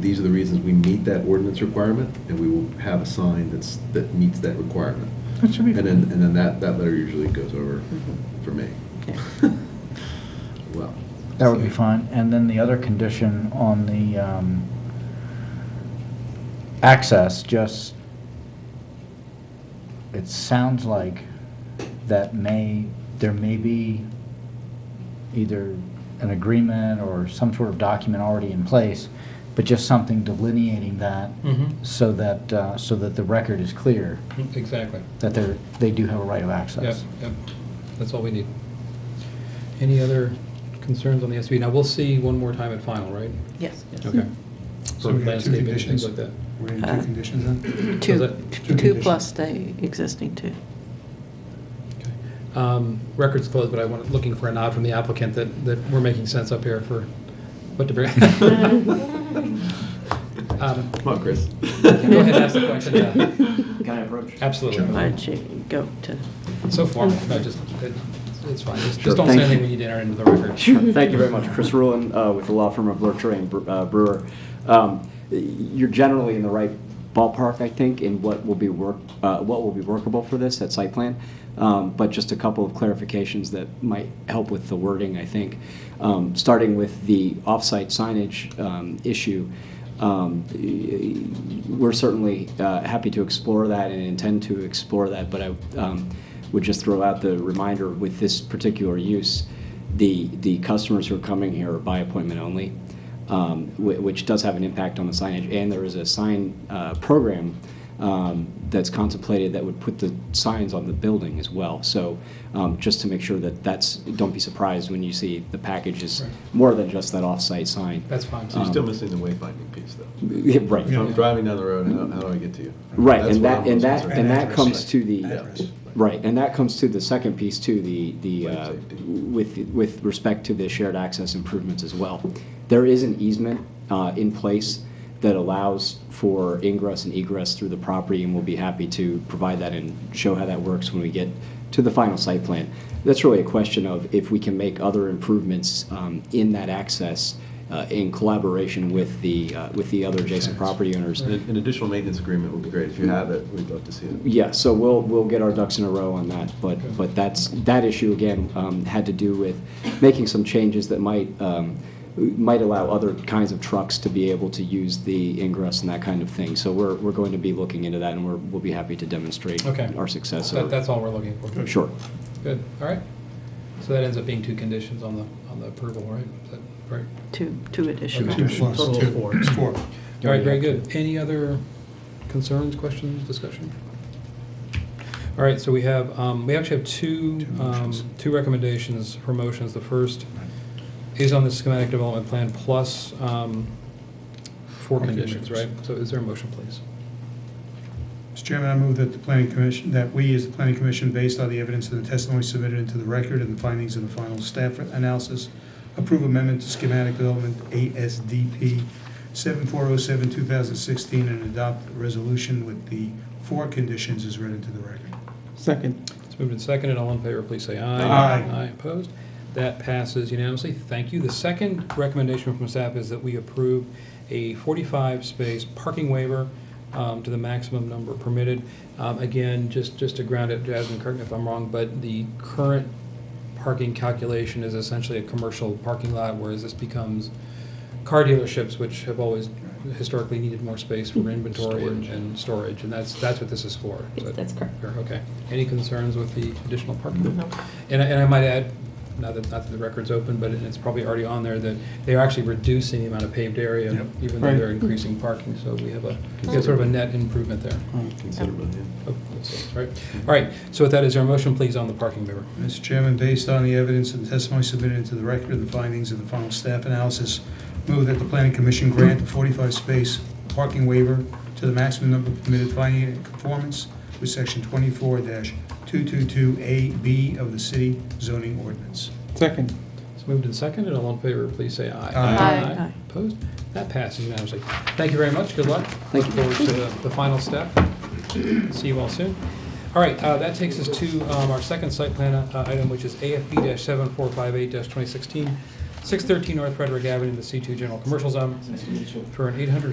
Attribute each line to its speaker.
Speaker 1: These are the reasons we meet that ordinance requirement, and we will have a sign that's, that meets that requirement.
Speaker 2: That should be
Speaker 1: And then,
Speaker 2: fine.
Speaker 1: and then that, that letter usually goes over
Speaker 3: Mm-hmm.
Speaker 1: for me.
Speaker 4: Yeah.
Speaker 1: Well.
Speaker 2: That would be
Speaker 1: so-
Speaker 2: fine. And then the other condition on the um, access, just, it sounds like that may, there may be either an agreement or some sort of document already in place, but just something delineating that
Speaker 5: Mhm.
Speaker 2: so that, uh, so that the record is clear,
Speaker 5: Exactly.
Speaker 2: that they're, they do have a right of
Speaker 5: Yep,
Speaker 2: access.
Speaker 5: yep. That's all we need. Any other concerns on the SB? Now, we'll see one more time at final, right?
Speaker 4: Yes.
Speaker 5: Okay.
Speaker 6: So we have two
Speaker 5: Landscaping,
Speaker 6: conditions.
Speaker 5: Things like that.
Speaker 6: We're in two
Speaker 4: Uh,
Speaker 6: conditions then?
Speaker 4: Two,
Speaker 5: that-
Speaker 6: Two
Speaker 4: two
Speaker 6: conditions.
Speaker 4: plus the existing two.
Speaker 5: Okay. Um, Record's closed, but I want, looking for a nod from the applicant that, that we're making sense up here for what to bring. Um,
Speaker 1: Come on, Chris.
Speaker 5: Go ahead, ask the question, yeah.
Speaker 3: Can I approach?
Speaker 5: Absolutely.
Speaker 4: Why don't you go to,
Speaker 5: So formal, no, just, it- it's fine. Just
Speaker 1: Sure.
Speaker 5: just don't say
Speaker 3: Thank you.
Speaker 5: anything we need to enter into the record.
Speaker 3: Sure. Thank you very much. Chris Rulon uh, with the law firm of Lurcher and Bre- uh, Brewer. Um, You're generally in the right ballpark, I think, in what will be work, uh, what will be workable for this at site plan. Um, But just a couple of clarifications that might help with the wording, I think. Um, Starting with the off-site signage um, issue, um, we're certainly uh, happy to explore that and intend to explore that, but I um, would just throw out the reminder with this particular use, the, the customers who are coming here are by appointment only, um, whi- which does have an impact on the signage. And there is a sign uh, program um, that's contemplated that would put the signs on the building as well. So um, just to make sure that that's, don't be surprised when you see the package is
Speaker 5: Right.
Speaker 3: more than just that off-site sign. Um,
Speaker 5: That's fine.
Speaker 1: So you're still missing the wayfinding piece, though.
Speaker 3: Yeah, Right.
Speaker 1: If I'm driving down the road, how, how do I get to you?
Speaker 3: Right,
Speaker 1: That's
Speaker 3: and
Speaker 1: what
Speaker 3: that,
Speaker 1: I'm
Speaker 3: and
Speaker 1: most
Speaker 3: that,
Speaker 1: concerned
Speaker 3: and
Speaker 1: about.
Speaker 3: that comes to the,
Speaker 1: Address.
Speaker 3: right, and that comes to the second piece too, the, the,
Speaker 1: Life
Speaker 3: uh,
Speaker 1: safety.
Speaker 3: with, with respect to the shared access improvements as well. There is an easement uh, in place that allows for ingress and egress through the property, and we'll be happy to provide that and show how that works when we get to the final site plan. That's really a question of if we can make other improvements um, in that access uh, in collaboration with the, uh, with the other adjacent property owners.
Speaker 1: An an additional maintenance agreement would be great. If you have it, we'd love to see it.
Speaker 3: Yeah, so we'll, we'll get our ducks in a row on that, but, but that's, that issue again, um, had to do with making some changes that might, um, might allow other kinds of trucks to be able to use the ingress and that kind of thing. So we're, we're going to be looking into that and we're, we'll be happy to demonstrate
Speaker 5: Okay.
Speaker 3: our success.
Speaker 5: That-
Speaker 3: or-
Speaker 5: That's all we're looking for.
Speaker 3: Sure.
Speaker 5: Good, all right. So that ends up being two conditions on the, on the approval, right? Is that right?
Speaker 4: two, two additional.
Speaker 6: Two plus
Speaker 5: Total
Speaker 6: two.
Speaker 5: of four.
Speaker 6: It's four.
Speaker 5: All right, very good. Any other concerns, questions, discussion? All right, so we have, um, we actually have two,
Speaker 6: Two
Speaker 5: um,
Speaker 6: motions.
Speaker 5: two recommendations for motions. The first is on the schematic development plan plus um, four
Speaker 6: Four
Speaker 5: conditions, right?
Speaker 6: conditions.
Speaker 5: So is there a motion, please?
Speaker 6: Mr. Chairman, I move that the planning commission, that we, as the planning commission, based on the evidence and the testimony submitted into the record and the findings of the final staff analysis, approve amendment to schematic development ASDP 7407-2016 and adopt a resolution with the four conditions as read into the record.
Speaker 7: Second.
Speaker 5: It's moved and seconded. All in favor, please say aye.
Speaker 6: Aye.
Speaker 5: Aye opposed. That passes unanimously. Thank you. The second recommendation from staff is that we approve a 45-space parking waiver um, to the maximum number permitted. Um, Again, just, just to ground it, Jasmine, correct me if I'm wrong, but the current parking calculation is essentially a commercial parking lot, whereas this becomes car dealerships, which have always historically needed more space for inventory and- and storage, and that's, that's what this is for. Is that-
Speaker 4: That's correct.
Speaker 5: Fair, Okay. Any concerns with the additional parking?
Speaker 4: No.
Speaker 5: And I, and I might add, not that, not that the record's open, but it's probably already on there, that they are actually reducing the amount of paved area,
Speaker 6: Yep.
Speaker 5: even though
Speaker 7: Right.
Speaker 5: they're increasing parking, so we have a, we have sort of a net improvement there.
Speaker 1: Considerably, yeah.
Speaker 5: Oh, that's Right, all right, so with that, is there a motion, please, on the parking waiver?
Speaker 6: Mr. Chairman, based on the evidence and testimony submitted into the record and the findings of the final staff analysis, move that the planning commission grant a 45-space parking waiver to the maximum number permitted finding it in conformance with section 24-222A-B of the city zoning ordinance.
Speaker 7: Second.
Speaker 5: It's moved and seconded, all in favor, please say aye.
Speaker 6: Aye.
Speaker 4: Aye. Aye.
Speaker 5: Opposed? That passes unanimously. Thank you very much, good luck.
Speaker 3: Thank
Speaker 5: Look
Speaker 3: you.
Speaker 5: forward to the, the final step. See you all soon. All right, uh, that takes us to um, our second site plan uh, item, which is AFB seven four five eight twenty sixteen, six thirteen North Frederick Avenue in the C two General Commercial Zone, for an eight hundred